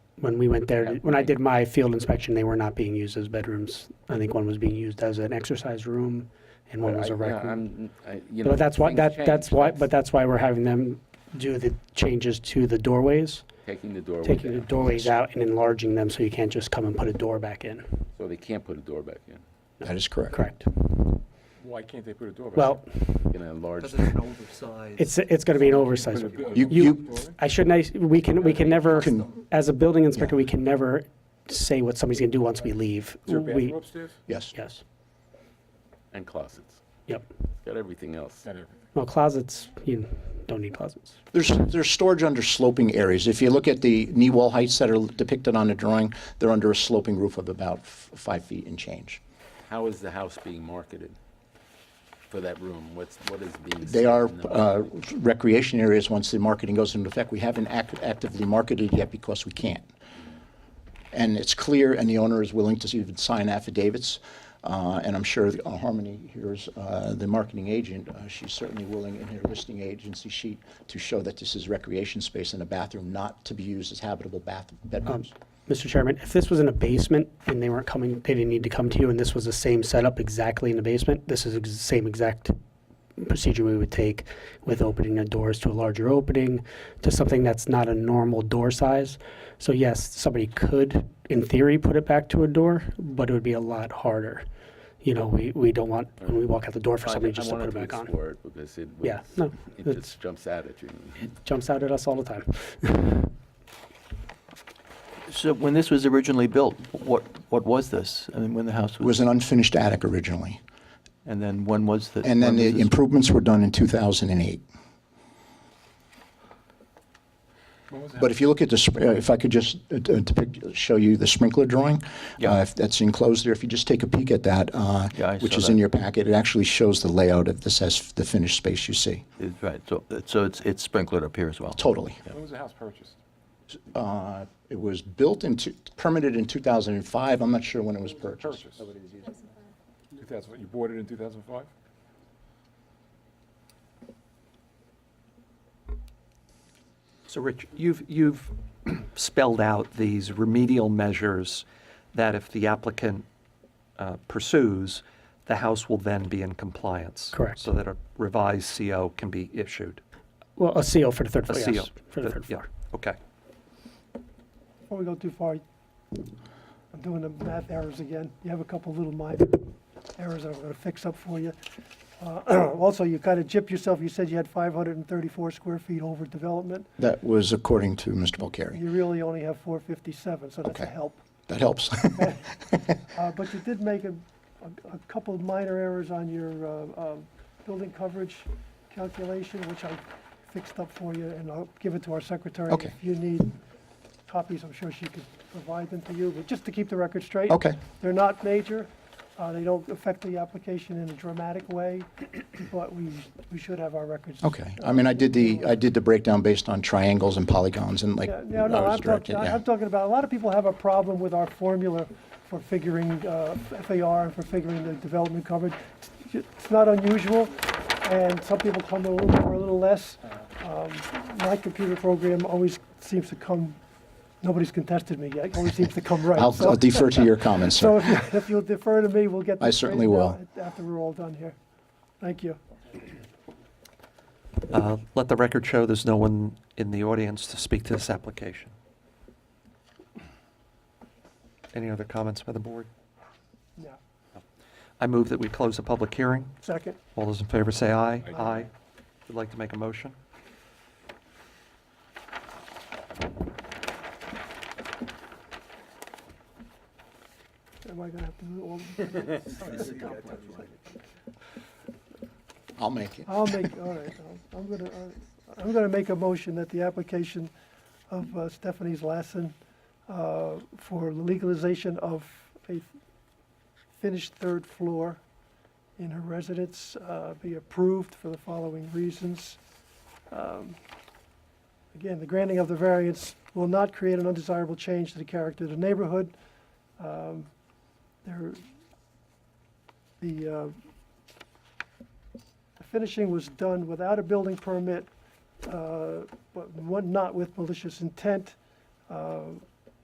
when we went there, when I did my field inspection, they were not being used as bedrooms. I think one was being used as an exercise room and one But was I- a rec yeah, room. I'm- I- you know, But that's why, things that, that's change. why, but that's why we're having them do the changes to the doorways, Taking the doorway taking the down, doorways out and enlarging them so you can't just come and put a door back in. so they can't put a door back in. That is correct. Correct. Why can't they put a door back? Well, Can enlarge, Because it's an oversized. it's, it's going to be an oversized. You- you- I shouldn't, I- we can, we can never, Can- as a building inspector, we can never say what somebody's going to do once we leave. Is there a We- bathroom upstairs? Yes. Yes, and closets, yep. it's got everything else. Not everything. Well, closets, you don't need closets. There's, there's storage under sloping areas. If you look at the knee wall heights that are depicted on the drawing, they're under a sloping roof of about f- five feet and change. How is the house being marketed for that room? What's, what is being? They said are in the- uh, recreation areas once the marketing goes into effect. We haven't ac- actively marketed yet because we can't. And it's clear, and the owner is willing to even sign affidavits. uh, And I'm sure uh, Harmony here's uh, the marketing agent, uh, she's certainly willing in her listing agency sheet to show that this is recreation space and a bathroom not to be used as habitable bath bedrooms. Mr. Chairman, if this was in a basement and they weren't coming, they didn't need to come to you, and this was the same setup exactly in the basement, this is the same exact procedure we would take with opening the doors to a larger opening, to something that's not a normal door size. So yes, somebody could, in theory, put it back to a door, but it would be a lot harder. You know, we, we don't want, when we walk out the door for I- somebody just to I put wanted it back on. explore it Because it Yeah, was- no, it it's- just jumps out at you. Jumps out at us all the time. So when this was originally built, what, what was this? I mean, when the house It was was, an unfinished attic originally. and then when was the? And then when was the this- improvements were done in 2008. But if you look at the, sp- uh, if I could just uh, d- uh, depict, show you the sprinkler drawing, Yeah. uh, if that's enclosed there, if you just take a peek at that, uh, Yeah, I which saw is in that. your packet, it actually shows the layout of this as the finished space you see, It's Right, so, so it's, it's sprinkled up here as well? totally. When was the house purchased? Uh, It was built in, two- permitted in 2005, I'm not sure when it was purchased. Purchased. Two thousand, you bought it in two thousand five? So, Rich, you've, you've spelled out these remedial measures that if the applicant uh, pursues, the house will then be in compliance. Correct. So that a revised CO can be issued. Well, a seal for the third A floor, CO. yes, for the that- third yeah, floor. Okay. Before we go too far, I'm doing the math errors again. You have a couple little minor errors that I'm gonna fix up for you. Uh, Also, you kind of gypped yourself. You said you had 534 square feet over development. That was according to Mr. Bulgari. You really only have 457, so that's a Okay. help. That helps. Uh, But you did make a, a- a couple of minor errors on your uh, um, building coverage calculation, which I fixed up for you, and I'll give it to our secretary. Okay. If you need copies, I'm sure she could provide them to you, but just to keep the record straight. Okay, They're not major, uh, they don't affect the application in a dramatic way, but we, we should have our records. okay. I mean, I did the, I did the breakdown based on triangles and polygons and like, Yeah, I No, no, was I'm talking, directed, I- yeah. I'm talking about, a lot of people have a problem with our formula for figuring uh, FAR and for figuring the development coverage. It's it's not unusual, and some people come a little more, a little less. Um, My computer program always seems to come, nobody's contested me yet, always seems to come right. I'll So- I'll defer to your comments, So sir. if you- if you'll defer to me, we'll get I this certainly straightened out After we're all done here. Thank you. Uh, Let the record show there's no one in the audience to speak to this application. Any other comments by the board? Yeah. I move that we close the public hearing. Second, All those in favor say aye. Aye. Would like to make a motion? am I gonna have to do all? I'll make it. I'll make, all right, I'll- I'm gonna, uh, I'm gonna make a motion that the application of uh, Stephanie's Lassen uh, for legalization of a finished third floor in her residence uh, be approved for the following reasons. Um, Again, the granting of the variance will not create an undesirable change to the character of the neighborhood. Um, There, the uh, the finishing was done without a building permit, uh, but one- not with malicious intent. Uh,